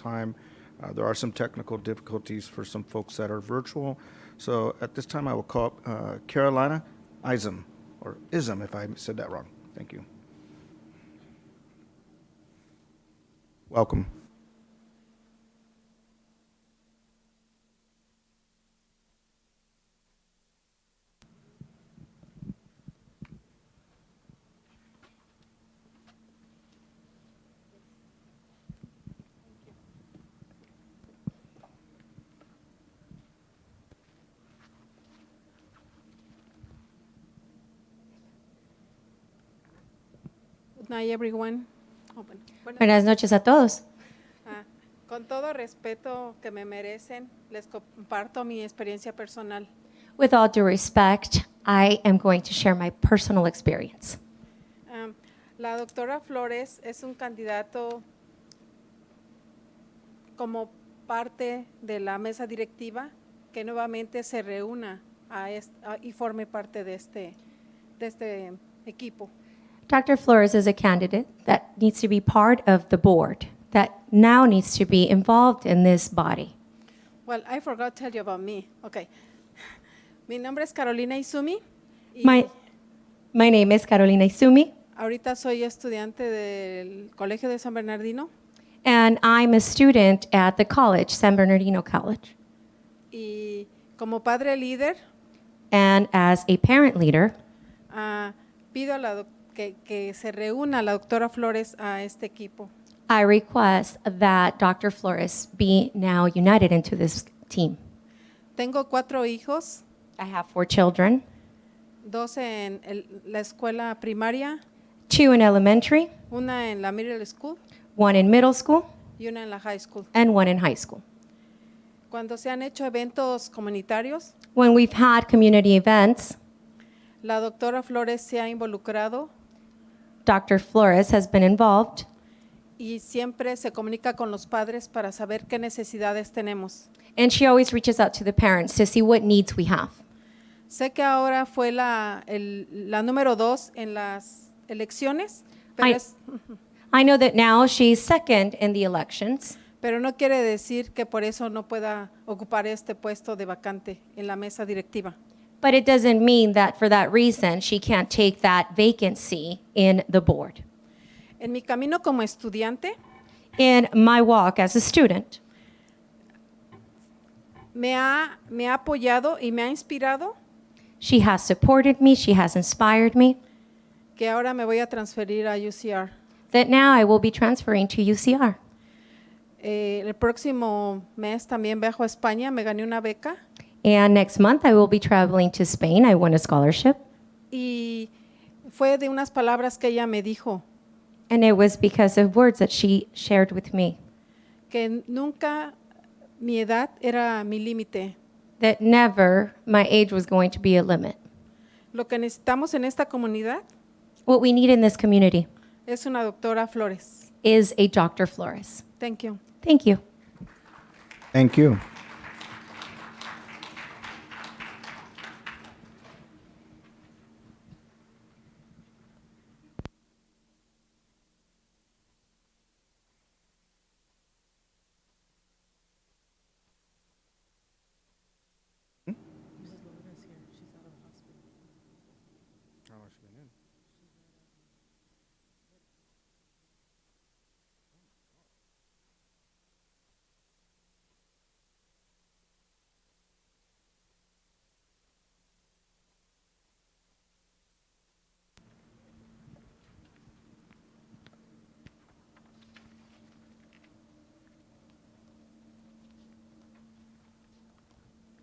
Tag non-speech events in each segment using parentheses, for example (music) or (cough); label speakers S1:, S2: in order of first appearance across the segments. S1: time. Uh, There are some technical difficulties for some folks that are virtual. So at this time, I will call up, uh, Carolina Isom, or Ism, if I said that wrong. Thank you. Welcome.
S2: Good night, everyone. Oh, bueno. Bueno,
S3: Buenas noches a todos.
S2: ah, con todo respeto que me merecen, les comparto mi experiencia personal.
S3: With all due respect, I am going to share my personal experience.
S2: Am, la doctora Flores es un candidato como parte de la mesa directiva que nuevamente se reúna a est- a- y forme parte de este, de este equipo.
S3: Dr. Flores is a candidate that needs to be part of the board, that now needs to be involved in this body.
S2: Well, I forgot to tell you about me. Okay. (laughs) Mi nombre es Carolina Izumi. y-
S3: My, my name is Carolina Isumi,
S2: Ahorita soy estudiante del Colegio de San Bernardino
S3: and I'm a student at the college, San Bernardino College.
S2: y como padre líder
S3: And as a parent leader,
S2: ah, pido a la doc- que, que se reúna la doctora Flores a este equipo.
S3: I request that Dr. Flores be now united into this team.
S2: Tengo cuatro hijos,
S3: I have four children,
S2: dos en el- la escuela primaria,
S3: two in elementary,
S2: una en la middle school
S3: one in middle school,
S2: y una en la high school.
S3: and one in high school.
S2: Cuando se han hecho eventos comunitarios,
S3: When we've had community events,
S2: la doctora Flores se ha involucrado
S3: Dr. Flores has been involved
S2: y siempre se comunica con los padres para saber qué necesidades tenemos.
S3: and she always reaches out to the parents to see what needs we have.
S2: Sé que ahora fue la, el- la número dos en las elecciones, pero,
S3: Ay.
S2: es-
S3: I know that now she's second in the elections,
S2: pero no quiere decir que por eso no pueda ocupar este puesto de vacante en la mesa directiva.
S3: but it doesn't mean that for that reason she can't take that vacancy in the board.
S2: En mi camino como estudiante,
S3: In my walk as a student,
S2: me ha, me ha apoyado y me ha inspirado
S3: she has supported me, she has inspired me,
S2: que ahora me voy a transferir a UCR.
S3: that now I will be transferring to UCR.
S2: Eh, el próximo mes también viajo a España, me gané una beca
S3: And next month I will be traveling to Spain. I won a scholarship.
S2: y fue de unas palabras que ella me dijo,
S3: And it was because of words that she shared with me
S2: que nunca mi edad era mi límite.
S3: that never my age was going to be a limit.
S2: Lo que necesitamos en esta comunidad
S3: What we need in this community
S2: es una doctora Flores.
S3: is a Dr. Flores.
S2: Thank you.
S3: Thank you.
S1: Thank you.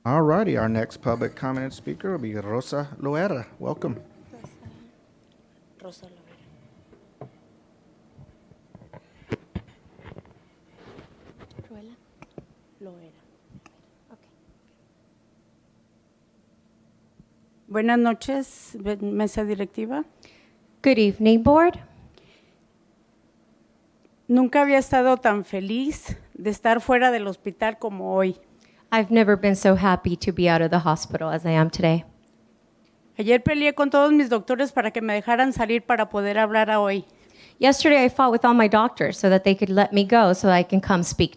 S1: All righty, our next public comment and speaker will be Rosa Loera. Welcome.
S4: Buenas noches, be- mesa directiva.
S3: Good evening, board.
S4: Nunca había estado tan feliz de estar fuera del hospital como hoy.
S3: I've never been so happy to be out of the hospital as I am today.
S4: Ayer peleé con todos mis doctores para que me dejaran salir para poder hablar a hoy.
S3: Yesterday, I fought with all my doctors so that they could let me go so I can come speak